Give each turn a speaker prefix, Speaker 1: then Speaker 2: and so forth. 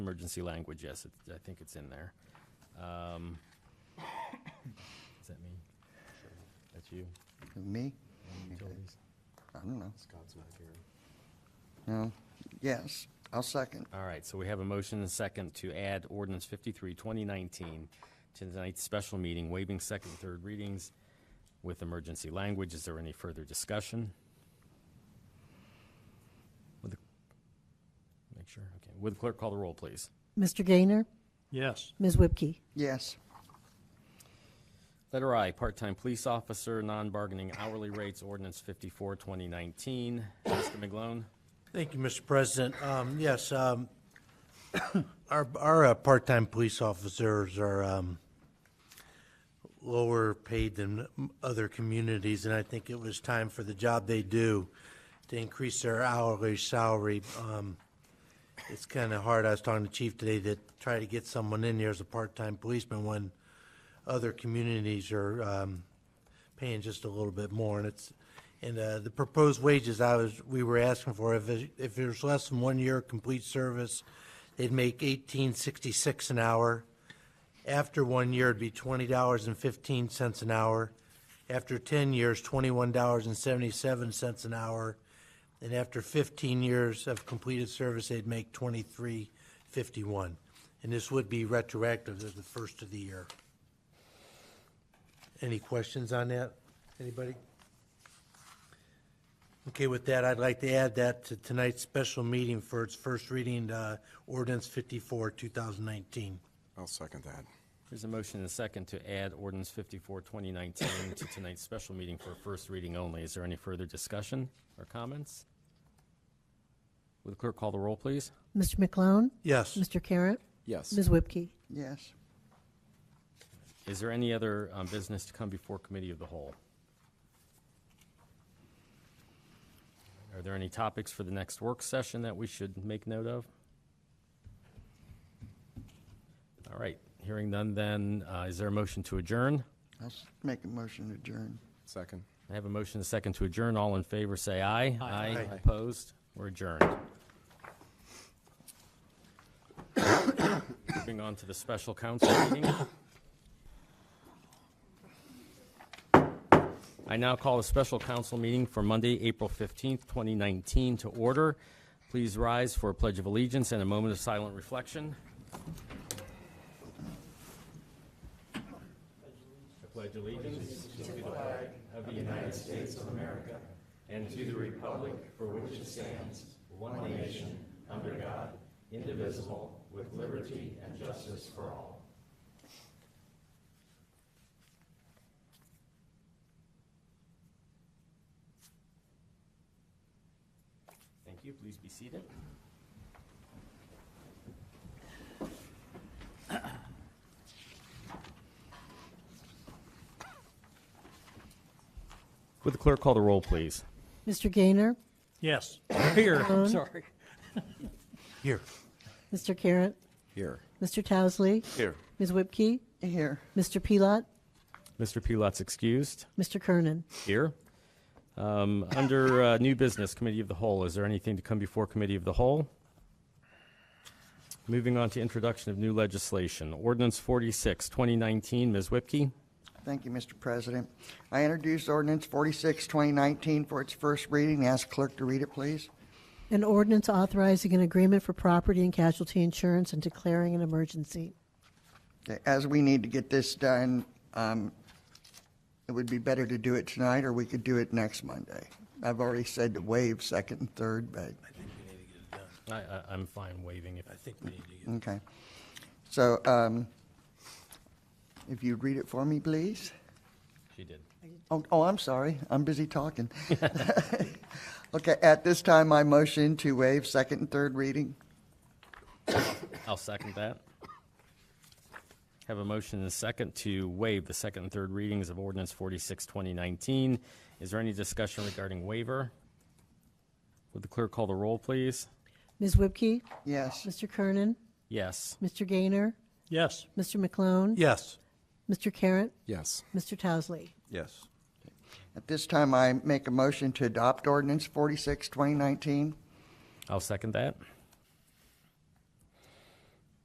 Speaker 1: Emergency language, yes, it- I think it's in there. Um, Is that me? That's you?
Speaker 2: Me?
Speaker 1: Utilities?
Speaker 2: I don't know.
Speaker 3: Scott's not here.
Speaker 2: No. Yes, I'll second.
Speaker 1: All right, so we have a motion and a second to add ordinance 53, 2019 to tonight's special meeting, waiving second and third readings with emergency language. Is there any further discussion? Would the- Make sure, okay. Would the clerk call the roll, please?
Speaker 4: Mr. Gaynor?
Speaker 5: Yes.
Speaker 4: Ms. Whipke?
Speaker 2: Yes,
Speaker 1: Letter I, part-time police officer, non-bargaining hourly rates, ordinance 54, 2019. Mr. McGlone?
Speaker 5: Thank you, Mr. President. Um, Yes, um, our, our uh, part-time police officers are um, lower paid than other communities, and I think it was time for the job they do to increase their hourly salary. Um, It's kind of hard, I was talking to Chief today, to try to get someone in here as a part-time policeman when other communities are um, paying just a little bit more, and it's, and uh, the proposed wages I was, we were asking for, if it- if there's less than one year complete service, they'd make eighteen sixty-six an hour. After one year, it'd be twenty dollars and fifteen cents an hour. After ten years, twenty-one dollars and seventy-seven cents an hour. And after fifteen years of completed service, they'd make twenty-three fifty-one. And this would be retroactive to the first of the year. Any questions on that? Anybody? Okay, with that, I'd like to add that to tonight's special meeting for its first reading, uh, ordinance 54, 2019.
Speaker 3: I'll second that.
Speaker 1: There's a motion and a second to add ordinance 54, 2019 to tonight's special meeting for first reading only. Is there any further discussion or comments? Would the clerk call the roll, please?
Speaker 4: Mr. McClone?
Speaker 5: Yes.
Speaker 4: Mr. Carratt?
Speaker 3: Yes.
Speaker 4: Ms. Whipke?
Speaker 2: yes.
Speaker 1: Is there any other um, business to come before committee of the whole? Are there any topics for the next work session that we should make note of? All right, hearing none then, uh, is there a motion to adjourn?
Speaker 2: I'll s- make a motion to adjourn.
Speaker 3: Second.
Speaker 1: I have a motion and a second to adjourn. All in favor, say aye. Aye.
Speaker 5: Aye.
Speaker 1: Opposed? We're adjourned. Moving on to the special council meeting. I now call a special council meeting for Monday, April 15th, 2019 to order. Please rise for a pledge of allegiance and a moment of silent reflection. I pledge allegiance to the flag of the United States of America and to the republic for which it stands, one nation, under God, indivisible, with liberty and justice for all. Thank you. Please be seated. Would the clerk call the roll, please?
Speaker 4: Mr. Gaynor?
Speaker 5: Yes.
Speaker 6: Here, sorry.
Speaker 5: Here.
Speaker 4: Mr. Carratt?
Speaker 3: Here.
Speaker 4: Mr. Towesley?
Speaker 3: Here.
Speaker 4: Ms. Whipke?
Speaker 2: Here,
Speaker 4: Mr. Pelot?
Speaker 1: Mr. Pilat's excused.
Speaker 4: Mr. Kernan?
Speaker 1: here. Um, Under uh, new business, committee of the whole, is there anything to come before committee of the whole? Moving on to introduction of new legislation, ordinance 46, 2019, Ms. Whipke.
Speaker 2: thank you, Mr. President. I introduced ordinance 46, 2019 for its first reading. Ask clerk to read it, please.
Speaker 4: An ordinance authorizing an agreement for property and casualty insurance and declaring an emergency.
Speaker 2: Okay, As we need to get this done, um, it would be better to do it tonight, or we could do it next Monday. I've already said to waive second and third, but
Speaker 1: I- I- I'm fine waiving it.
Speaker 5: I think we need to get.
Speaker 2: Okay. So um, if you'd read it for me, please.
Speaker 1: She did.
Speaker 2: Oh, oh, I'm sorry. I'm busy talking. Okay, at this time, I motion to waive second and third reading.
Speaker 1: I'll second that. Have a motion and a second to waive the second and third readings of ordinance 46, 2019. Is there any discussion regarding waiver? Would the clerk call the roll, please?
Speaker 4: Ms. Whipke?
Speaker 2: Yes,
Speaker 4: Mr. Kernan?
Speaker 1: Yes.
Speaker 4: Mr. Gaynor?
Speaker 5: Yes.
Speaker 4: Mr. McClone?
Speaker 5: Yes.
Speaker 4: Mr. Carratt?
Speaker 3: Yes.
Speaker 4: Mr. Towesley?
Speaker 5: Yes.
Speaker 2: at this time, I make a motion to adopt ordinance 46, 2019.
Speaker 1: I'll second that.